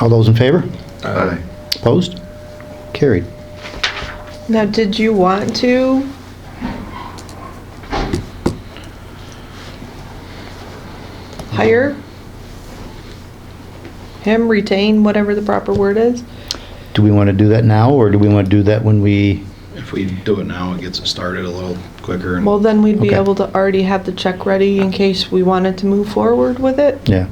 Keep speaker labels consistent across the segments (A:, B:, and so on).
A: All those in favor?
B: Aye.
A: Opposed? Carried.
C: Now, did you want to? Hire? Him, retain, whatever the proper word is?
A: Do we want to do that now, or do we want to do that when we,
B: If we do it now, it gets it started a little quicker and
C: Well, then we'd be
A: Okay.
C: able to already have the check ready in case we wanted to move forward with it.
A: yeah?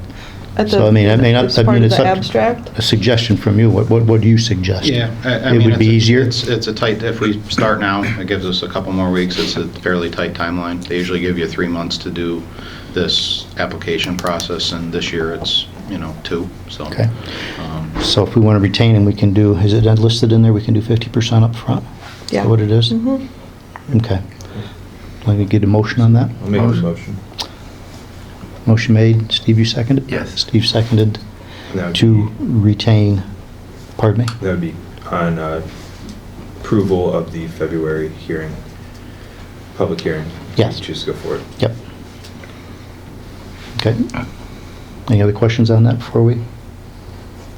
C: at
A: So,
C: the-
A: I mean, I may not-
C: As
A: I
C: part
A: mean,
C: of
A: it's
C: the
A: up to-
C: abstract.
A: A suggestion from you, what, what what do you suggest?
B: Yeah. I- I
A: It
B: mean,
A: would be
B: it's a-
A: easier?
B: It's it's a tight, if we start now, it gives us a couple more weeks. It's a fairly tight timeline. They usually give you three months to do this application process, and this year it's, you know, two, so.
A: Okay.
B: um,
A: So if we want to retain him, we can do, is it listed in there, we can do 50% up front. Is
C: Yeah.
A: that what it is?
C: Mhm.
A: Okay. Let me get a motion on that.
D: I'll make the motion.
A: Motion made, Steve, you seconded?
D: Yes.
A: Steve seconded
D: And that would
A: to
D: be-
A: retain, pardon me?
D: That would be on uh, approval of the February hearing, public hearing. if you
A: Yes.
D: Choose to go forward.
A: Yep. Okay. Any other questions on that before we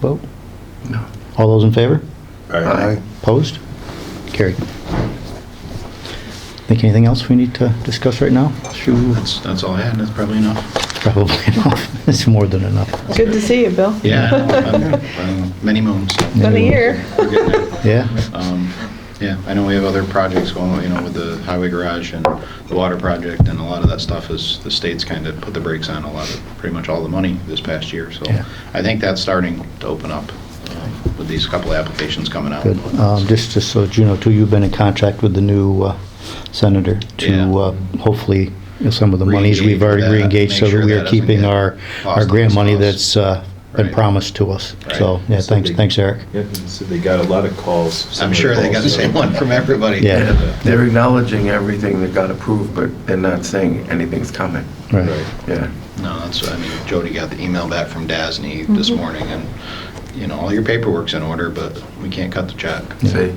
A: vote?
B: No.
A: All those in favor?
D: All right.
A: Opposed? Carried. Think anything else we need to discuss right now?
B: That's, that's all I had, and that's probably enough.
A: Probably enough. It's more than enough.
C: Good to see you, Bill.
B: Yeah, I'm- I'm- many moons.
C: Been a year.
B: We're getting there.
A: Yeah?
B: Um, Yeah, I know we have other projects going, you know, with the highway garage and the water project, and a lot of that stuff is, the state's kind of put the brakes on a lot of, pretty much all the money this past year, so
A: Yeah.
B: I think that's starting to open up uh, with these couple of applications coming out.
A: Good. Um, Just just so that you know, too, you've been in contact with the new uh, senator
B: Yeah.
A: to uh, hopefully, you know, some of the monies we've
B: Re-engage
A: already
B: with that,
A: re-engaged so
B: make sure
A: that we
B: that
A: are
B: doesn't
A: keeping
B: get
A: our,
B: lost
A: our
B: in
A: grant
B: the
A: money
B: sauce.
A: that's uh, been
B: Right.
A: promised to us. So,
B: Right.
A: yeah,
D: So
A: thanks,
D: they-
A: thanks, Eric.
D: Yep, and so they got a lot of calls.
B: I'm sure they got the same one from everybody.
A: Yeah.
E: They're acknowledging everything that got approved, but they're not saying anything's coming.
A: Right.
E: Yeah.
B: No, that's, I mean, Jody got the email back from Dasney this morning, and, you know, all your paperwork's in order, but we can't cut the check.
E: See,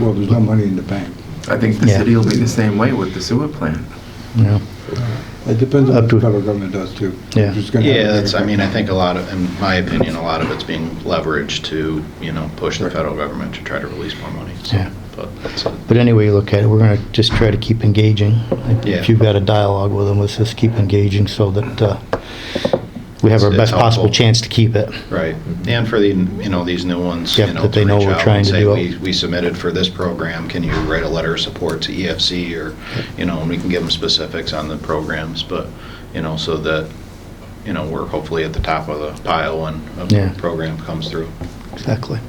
F: Well, there's no money in the bank.
E: I think the
A: Yeah.
E: city will be the same way with the sewer plant.
A: Yeah.
F: It depends on
A: Up
F: what the
A: to-
F: federal government does too.
A: Yeah.
F: It's gonna have a
B: Yeah, that's, I
F: bigger
B: mean, I think a lot of, in my opinion, a lot of it's being leveraged to, you know, push the federal government to try to release more money. so,
A: Yeah.
B: But that's it.
A: But anyway, you look at it, we're going to just try to keep engaging. If-
B: Yeah.
A: If you've got a dialogue with them, let's just keep engaging so that uh, we have our
B: It's- it's
A: best possible
B: helpful.
A: chance to keep it.
B: Right. And for the, you know, these new ones, you
A: Yep,
B: know,
A: that they
B: to
A: know
B: reach
A: we're
B: out
A: trying
B: and
A: to
B: say,
A: do it.
B: we, we submitted for this program, can you write a letter of support to EFC or, you know, and we can give them specifics on the programs, but, you know, so that, you know, we're hopefully at the top of the pile when
A: Yeah.
B: a program comes through.
A: Exactly.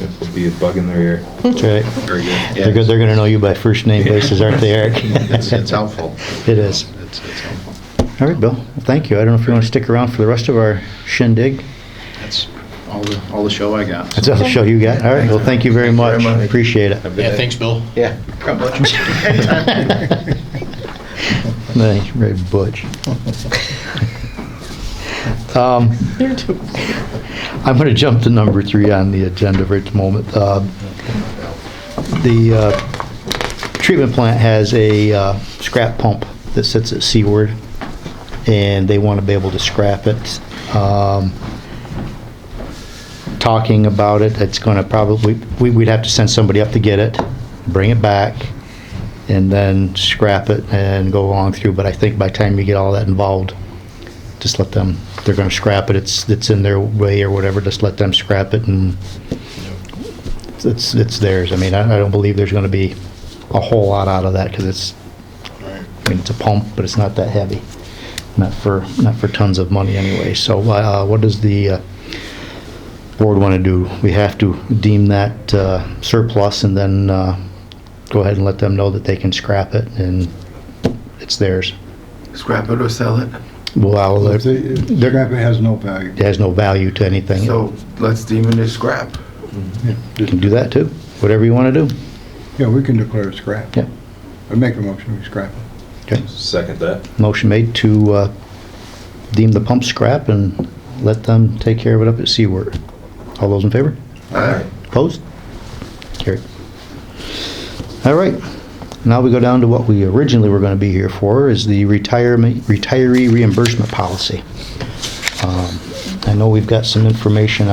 D: It'll be a bug in their ear.
A: That's right.
B: Very good. Hmm. Yeah,
A: They're going to know you by first name basis, aren't they, Eric?
B: It's it's helpful.
A: It is.
B: It's, it's helpful.
A: All right, Bill. Well, Thank you. I don't know if you want to stick around for the rest of our shindig.
B: That's all the, all the show I got.
A: That's all the show you got. All right. Well, thank you very much. Appreciate it.
B: Yeah, thanks, Bill. Yeah. Come Butch. Anytime.
A: Nice, very butch. Um,
C: You're too-
A: I'm going to jump to number three on the agenda for the moment. Uh, The uh, treatment plant has a uh, scrap pump that sits at Seaward, and they want to be able to scrap it. Um, Talking about it, it's going to probably, we- we'd have to send somebody up to get it, bring it back, and then scrap it and go along through. But I think by the time you get all that involved, just let them, they're gonna scrap it, it's, it's in their way or whatever, just let them scrap it and it's, it's theirs. I mean, I, I don't believe there's gonna be a whole lot out of that, cause it's, I mean, it's a pump, but it's not that heavy. Not for, not for tons of money anyway. So, uh, what does the, uh, board wanna do? We have to deem that, uh, surplus and then, uh, go ahead and let them know that they can scrap it and it's theirs.
E: Scrap it or sell it.
A: Well, I'll-
F: If they- if
A: they're-
F: Scrap it has no value.
A: it has no value to anything.
E: So let's deem it as scrap.
A: You can do that too, whatever you want to do.
F: Yeah, we can declare it scrap.
A: Yeah.
F: I make a motion, we scrap it.
A: Okay.
D: Second that.
A: Motion made to uh, deem the pump scrap and let them take care of it up at Seaward. All those in favor?
E: Aye.
A: Opposed? Carried. All right, now we go down to what we originally were going to be here for, is the retirement, retiree reimbursement policy. Um, I know we've got some information